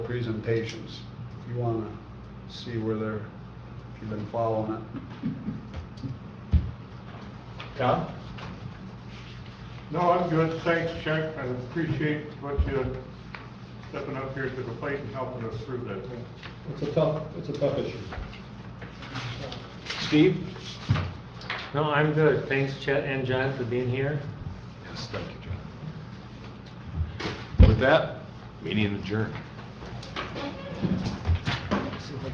presentations. If you wanna see where they're, if you've been following it. Tom? No, I'm good, thanks, Chuck, I appreciate what you stepping up here to the plate and helping us through that thing. It's a tough, it's a tough issue. Steve? No, I'm good. Thanks Chet and John for being here. Yes, thank you, John. With that, meeting adjourned.